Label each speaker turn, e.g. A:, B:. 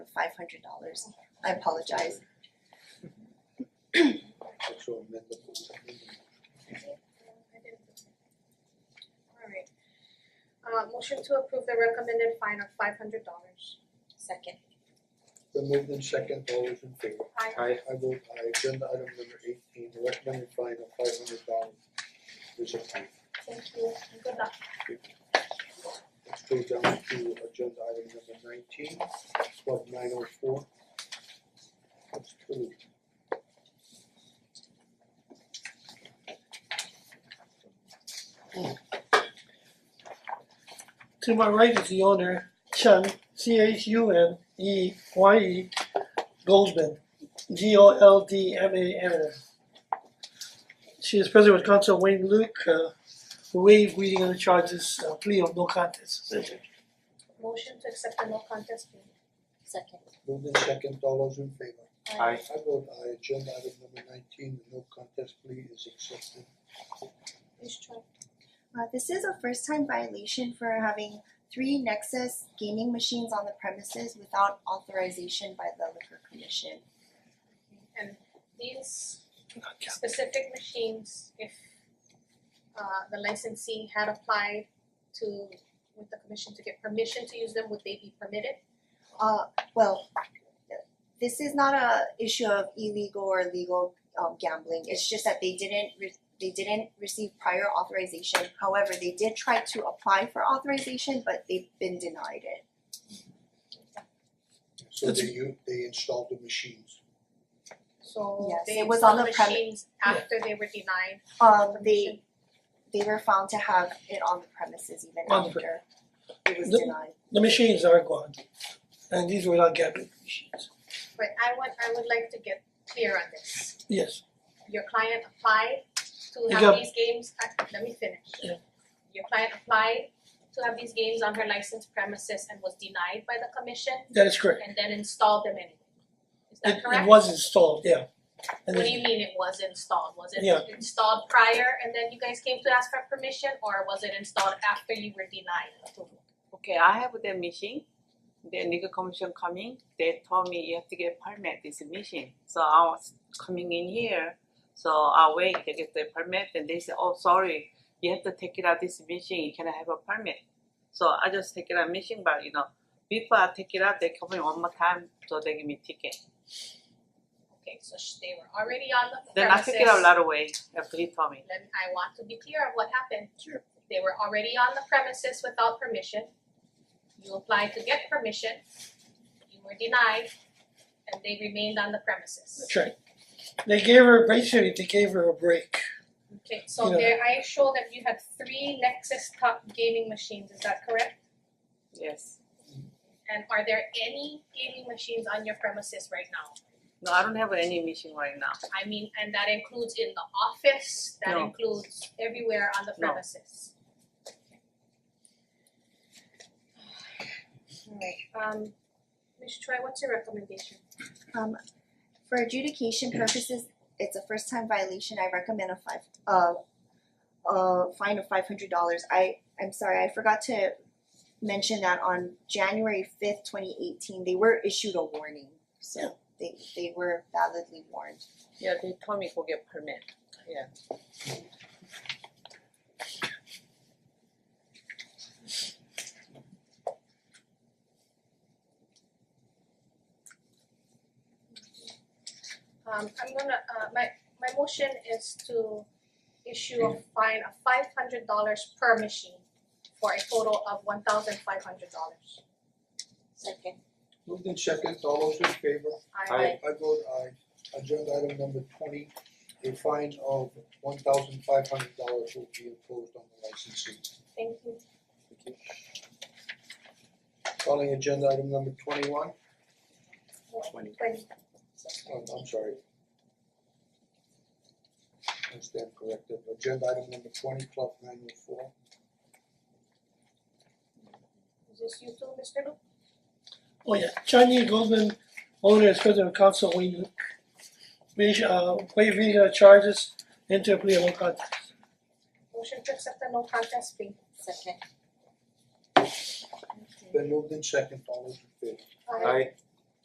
A: five hundred dollars. I apologize.
B: actual amendment.
C: Alright. Uh motion to approve the recommended fine of five hundred dollars.
A: Second.
B: The movement second, all those in favor?
C: Aye.
D: Aye.
B: I vote aye, agenda item number eighteen, the recommended fine of five hundred dollars is approved.
C: Thank you, and good luck.
B: Let's go down to agenda item number nineteen, twelve nine oh four. That's approved.
E: To my right is the owner, Chun, C H U N E Y E Goldman, G O L D M A N. She is present with counsel Wayne Luke, uh, who waived reading of the charges, uh, plea of no contest.
C: Motion to accept the no contest plea.
A: Second.
B: Movement second, all those in favor?
D: Aye.
B: I vote aye, agenda item number nineteen, the no contest plea is accepted.
C: Ms. Choi,
A: Uh this is a first time violation for having three Nexus gaming machines on the premises without authorization by the liquor commission.
C: and these specific machines, if uh the licensee had applied to with the commission to get permission to use them, would they be permitted?
A: Uh well, th- this is not a issue of illegal or legal um gambling, it's just that they didn't re- they didn't receive prior authorization. However, they did try to apply for authorization, but they've been denied it.
B: So they u- they installed the machines.
C: So
A: Yes,
C: they
A: it was on
C: installed
A: the premi-
C: machines after they were denied
A: Um
C: permission.
A: they they were found to have it on the premises even
E: On the
A: after it was
E: The-
A: denied.
E: The machines are gone, and these were not gambling machines.
C: But I would, I would like to get clear on this.
E: Yes,
C: Your client applied to
E: You
C: have
E: got-
C: these games, uh, let me finish.
E: Yeah.
C: Your client applied to have these games on her licensed premises and was denied by the commission
E: that is correct.
C: and then installed them anyway. Is
E: It,
C: that
E: it
C: correct?
E: was installed, yeah. And
C: What do
E: it,
C: you mean it was installed? Was it
E: Yeah.
C: installed prior and then you guys came to ask for permission or was it installed after you were denied approval?
F: Okay, I have the machine. The legal commission coming. They told me you have to get permit this machine. So I was coming in here. So I wait to get the permit, and they say, "Oh, sorry, you have to take it out this machine. You cannot have a permit." So I just take it out machine, but you know, before I take it out, they come in one more time, so they give me ticket.
C: Okay, so sh- they were already on the
F: Then
C: premises.
F: I take it out right away after he told me.
C: Then I want to be clear of what happened. They were already on the premises without permission. You applied to get permission, you were denied, and they remained on the premises.
E: that's right. They gave her, basically, they gave her a break.
C: Okay, so
E: Yeah.
C: there, I show that you had three Nexus top gaming machines, is that correct?
F: Yes.
C: And are there any gaming machines on your premises right now?
F: No, I don't have any machine right now.
C: I mean, and that includes in the office, that
F: No.
C: includes everywhere on the
F: No.
C: premises. Um, Ms. Choi, what's your recommendation?
A: Um for adjudication purposes, it's a first time violation, I recommend a five uh a fine of five hundred dollars. I I'm sorry, I forgot to mention that on January fifth, twenty eighteen, they were issued a warning. So they they were validly warned.
F: Yeah, they told me go get permit. Yeah.
C: Um I'm gonna uh my my motion is to issue a fine of five hundred dollars per machine for a total of one thousand five hundred dollars.
A: Second.
B: Moved in second, all those in favor?
C: I
D: Aye.
B: I vote aye. Agenda item number twenty, a fine of one thousand five hundred dollars will be imposed on the licensee.
C: thank you.
B: Calling agenda item number twenty-one,
D: Twenty.
C: Twenty.
B: oh, I'm sorry. I stand corrected. Agenda item number twenty, Club nine oh four.
C: Is this you too, Mister Luke?
E: Oh yeah, Johnny Goldman, owner and president of council, Wayne Luke. We uh waive reading of charges, enter plea of no contest.
C: Motion to accept the no contest plea.
A: Second.
B: Been moved in second, all those in favor?
D: Aye.